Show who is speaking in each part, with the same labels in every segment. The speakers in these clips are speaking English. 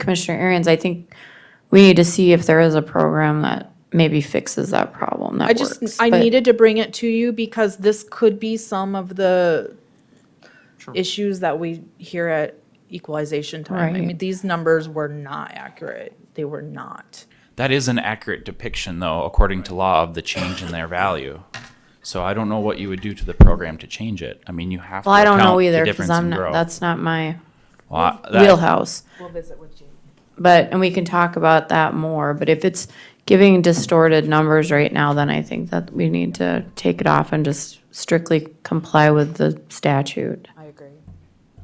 Speaker 1: Commissioner Arians, I think we need to see if there is a program that maybe fixes that problem
Speaker 2: I
Speaker 1: that
Speaker 2: just,
Speaker 1: works.
Speaker 2: I
Speaker 1: but-
Speaker 2: needed to bring it to you because this could be some of the issues that we hear at equalization time. I
Speaker 1: Right.
Speaker 2: mean, these numbers were not accurate. They were not.
Speaker 3: That is an accurate depiction, though, according to law, of the change in their value. So I don't know what you would do to the program to change it. I mean, you have
Speaker 1: Well, I
Speaker 3: to
Speaker 1: don't
Speaker 3: account
Speaker 1: know
Speaker 3: the
Speaker 1: either, because
Speaker 3: difference
Speaker 1: I'm,
Speaker 3: in
Speaker 1: not
Speaker 3: growth.
Speaker 1: that's not my
Speaker 3: Well, I- that-
Speaker 1: wheelhouse.
Speaker 2: We'll visit with you.
Speaker 1: But, and we can talk about that more, but if it's giving distorted numbers right now, then I think that we need to take it off and just strictly comply with the statute.
Speaker 2: I agree.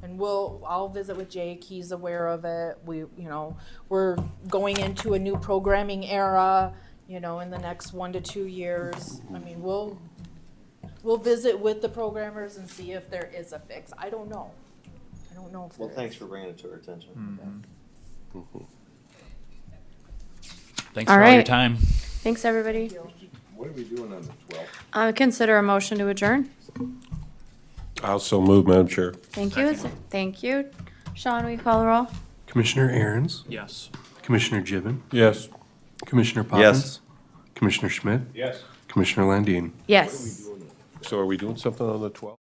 Speaker 2: And we'll, I'll visit with Jake, he's aware of it, we, you know, we're going into a new programming era, you know, in the next one to two years. I mean, we'll, we'll visit with the programmers and see if there is a fix. I don't know. I don't know if there
Speaker 4: Well,
Speaker 2: is.
Speaker 4: thanks for bringing it to our attention.
Speaker 3: Thanks for all your
Speaker 1: Alright.
Speaker 3: time.
Speaker 1: Thanks, everybody.
Speaker 4: What are we doing on the twelfth?
Speaker 1: Uh, consider a motion to adjourn.
Speaker 5: Also move, Madam Chair.
Speaker 1: Thank you, thank you. Sean, will you call the roll?
Speaker 6: Commissioner Aaron's,
Speaker 3: Yes.
Speaker 6: Commissioner Gibbon,
Speaker 5: Yes.
Speaker 6: Commissioner Poppins, Commissioner Schmidt,
Speaker 5: Yes.
Speaker 6: Commissioner Landine.
Speaker 1: Yes.
Speaker 5: So are we doing something on the 12th?